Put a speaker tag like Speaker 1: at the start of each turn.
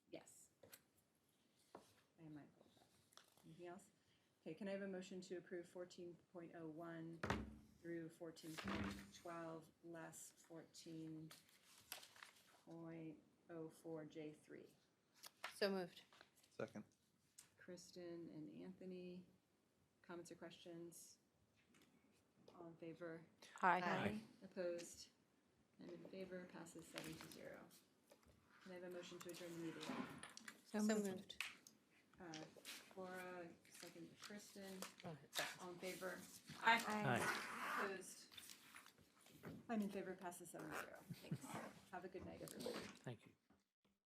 Speaker 1: Anything else? Okay, can I have a motion to approve fourteen point oh one through fourteen point twelve less fourteen point oh four J three?
Speaker 2: So moved.
Speaker 3: Second.
Speaker 1: Kristen and Anthony, comments or questions? All in favor?
Speaker 2: Aye.
Speaker 1: Opposed? And in favor, passes seven to zero. Can I have a motion to adjourn the meeting?
Speaker 2: So moved.
Speaker 1: Uh, Laura, second Kristen,
Speaker 2: Oh,
Speaker 1: all in favor?
Speaker 2: Aye.
Speaker 1: Opposed? I'm in favor, passes seven to zero. Thanks. Have a good night, everybody.
Speaker 4: Thank you.